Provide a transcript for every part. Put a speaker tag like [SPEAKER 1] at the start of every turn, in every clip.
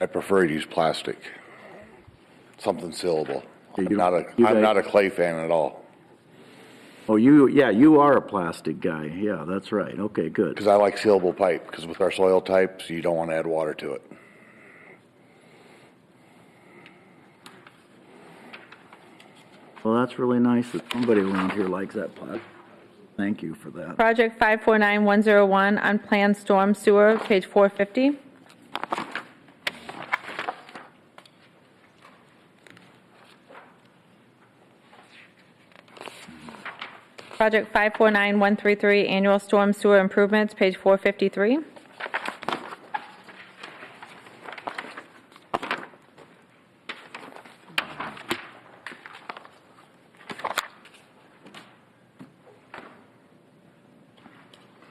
[SPEAKER 1] I prefer to use plastic, something sealable. I'm
[SPEAKER 2] You do-
[SPEAKER 1] not a,
[SPEAKER 2] you
[SPEAKER 1] I'm
[SPEAKER 2] guys-
[SPEAKER 1] not a clay fan at all,
[SPEAKER 2] Oh, you, yeah, you are a plastic guy. Yeah, that's right. Okay, good.
[SPEAKER 1] because I like sealable pipe, because with our soil types, you don't want to add water to it.
[SPEAKER 2] Well, that's really nice that somebody around here likes that plastic. Thank you for that.
[SPEAKER 3] Project 549101, unplanned storm sewer, page 450. Project 549133, annual storm sewer improvements, page 453.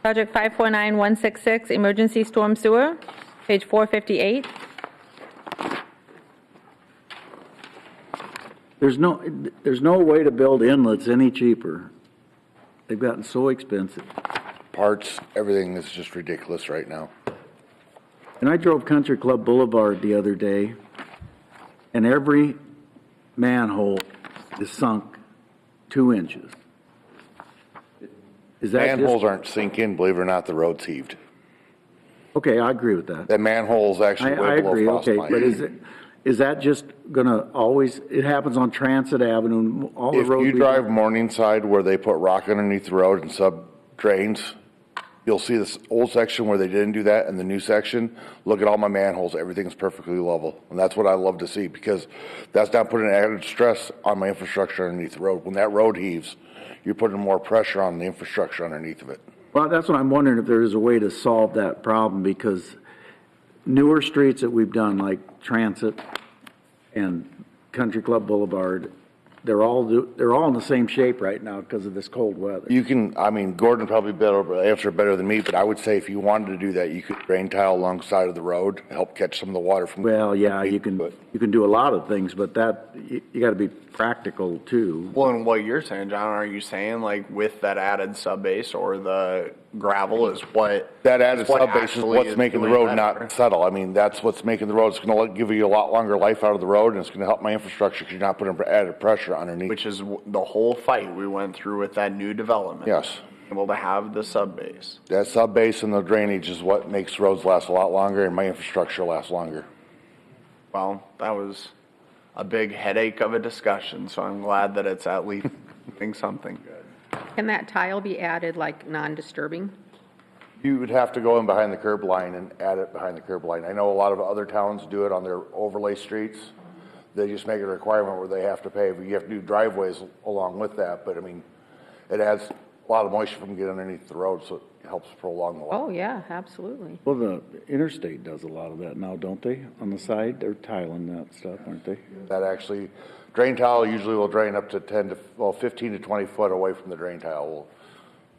[SPEAKER 3] Project 549166, emergency storm sewer, page 458.
[SPEAKER 2] There's no, there's no way to build inlets any cheaper. They've gotten so expensive.
[SPEAKER 1] Parts, everything is just ridiculous right now.
[SPEAKER 2] And I drove Country Club Boulevard the other day, and every manhole is sunk two inches. Is that just-
[SPEAKER 1] Manholes aren't sinking, believe it or not, the road's heaved.
[SPEAKER 2] Okay, I agree with that.
[SPEAKER 1] That manhole's
[SPEAKER 2] I,
[SPEAKER 1] actually
[SPEAKER 2] I
[SPEAKER 1] way below
[SPEAKER 2] agree,
[SPEAKER 1] frost
[SPEAKER 2] okay,
[SPEAKER 1] line.
[SPEAKER 2] but is it, is that just gonna always, it happens on Transit Avenue, all the
[SPEAKER 1] If
[SPEAKER 2] roads.
[SPEAKER 1] you
[SPEAKER 2] we-
[SPEAKER 1] drive Morningside where they put rock underneath the road and sub drains, you'll see this old section where they didn't do that and the new section. Look at all my manholes, everything's perfectly level. And that's what I love to see because that's not putting added stress on my infrastructure underneath the road. When that road heaves, you're putting more pressure on the infrastructure underneath of it.
[SPEAKER 2] Well, that's what I'm wondering, if there is a way to solve that problem, because newer streets that we've done, like Transit and Country Club Boulevard, they're all, do- they're all in the same shape right now because of this cold weather.
[SPEAKER 1] You can, I mean, Gordon probably better, answer better than me, but I would say if you wanted to do that, you could drain tile alongside of the road, help catch some of the water from.
[SPEAKER 2] Well, yeah, you can,
[SPEAKER 1] But-
[SPEAKER 2] you can do a lot of things, but that, you, you gotta be practical too.
[SPEAKER 4] Well, and what you're saying, John, are you saying like with that added sub base or the gravel is what?
[SPEAKER 1] That added
[SPEAKER 4] is what
[SPEAKER 1] subbase is
[SPEAKER 4] actually
[SPEAKER 1] what's making the
[SPEAKER 4] doing
[SPEAKER 1] road
[SPEAKER 4] better?
[SPEAKER 1] not settle. I mean, that's what's making the road, it's gonna let- give you a lot longer life out of the road, and it's gonna help my infrastructure, because you're not putting added pressure underneath.
[SPEAKER 4] Which is w- the whole fight we went through with that new development.
[SPEAKER 1] Yes,
[SPEAKER 4] Able to have the sub base.
[SPEAKER 1] that subbase and the drainage is what makes roads last a lot longer, and my infrastructure lasts longer.
[SPEAKER 4] Well, that was a big headache of a discussion, so I'm glad that it's at least doing something good.
[SPEAKER 5] Can that tile be added like non-disturbing?
[SPEAKER 1] You would have to go in behind the curb line and add it behind the curb line. I know a lot of other towns do it on their overlay streets. They just make it a requirement where they have to pave. You have to do driveways along with that, but I mean, it adds a lot of moisture from getting underneath the road, so it helps prolong the life.
[SPEAKER 5] Oh, yeah, absolutely.
[SPEAKER 2] Well, the interstate does a lot of that now, don't they? On the side, they're tiling that stuff, aren't they?
[SPEAKER 1] That actually, drain tile usually will drain up to 10 to, well, 15 to 20 foot away from the drain tile will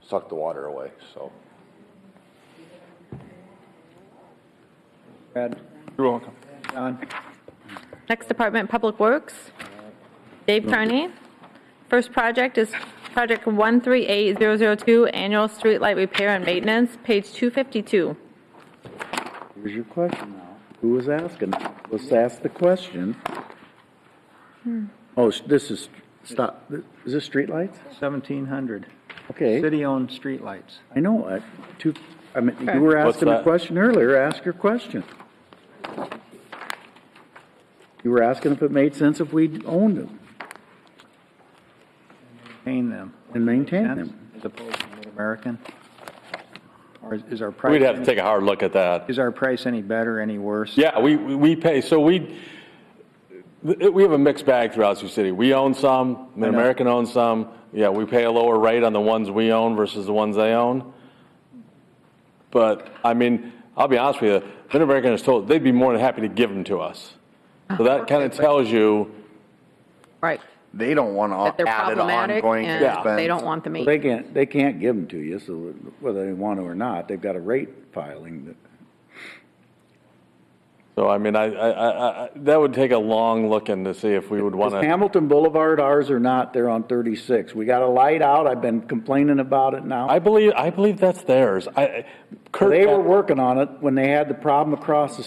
[SPEAKER 1] suck the water away, so.
[SPEAKER 2] Brad,
[SPEAKER 4] You're welcome.
[SPEAKER 2] John?
[SPEAKER 3] Next department, Public Works. Dave Carney. First project is Project 138002, annual streetlight repair and maintenance, page 252.
[SPEAKER 2] Here's your question now. Who was asking? Let's ask the question. Oh, s- this is, stop, th- is this streetlights?
[SPEAKER 6] Seventeen hundred.
[SPEAKER 2] Okay,
[SPEAKER 6] City-owned streetlights.
[SPEAKER 2] I know, I, two, I mean, you were
[SPEAKER 7] What's
[SPEAKER 2] asking a
[SPEAKER 7] that?
[SPEAKER 2] question earlier, ask your question. You were asking if it made sense if we owned them
[SPEAKER 6] Paying them.
[SPEAKER 2] and maintained them.
[SPEAKER 6] As opposed to Mid-American? Or is- is our price?
[SPEAKER 7] We'd have to
[SPEAKER 6] any-
[SPEAKER 7] take a hard look at that.
[SPEAKER 6] Is our price any better, any worse?
[SPEAKER 7] Yeah, we, we pay, so we, we have a mixed bag throughout Sioux City. We own some, Mid-American owns some. Yeah, we pay a lower rate on the ones we own versus the ones they own. But, I mean, I'll be honest with you, Mid-American is told, they'd be more than happy to give them to us. So that kind of tells you,
[SPEAKER 5] Right.
[SPEAKER 4] They don't want
[SPEAKER 5] That
[SPEAKER 4] to
[SPEAKER 5] they're
[SPEAKER 4] added
[SPEAKER 5] problematic
[SPEAKER 4] ongoing
[SPEAKER 5] and
[SPEAKER 4] expense.
[SPEAKER 5] they don't want them
[SPEAKER 2] Well,
[SPEAKER 5] either.
[SPEAKER 2] They can't, they can't give them to you, so whether they want to or not, they've got a rate filing that.
[SPEAKER 7] so I mean, I, I, I- I, that would take a long look in to see if we would want
[SPEAKER 2] Is
[SPEAKER 7] to.
[SPEAKER 2] Hamilton Boulevard ours or not, they're on 36. We got a light out, I've been complaining about it now.
[SPEAKER 7] I believe, I believe that's theirs. I, Kurt.
[SPEAKER 2] They were working on it when they had the problem across the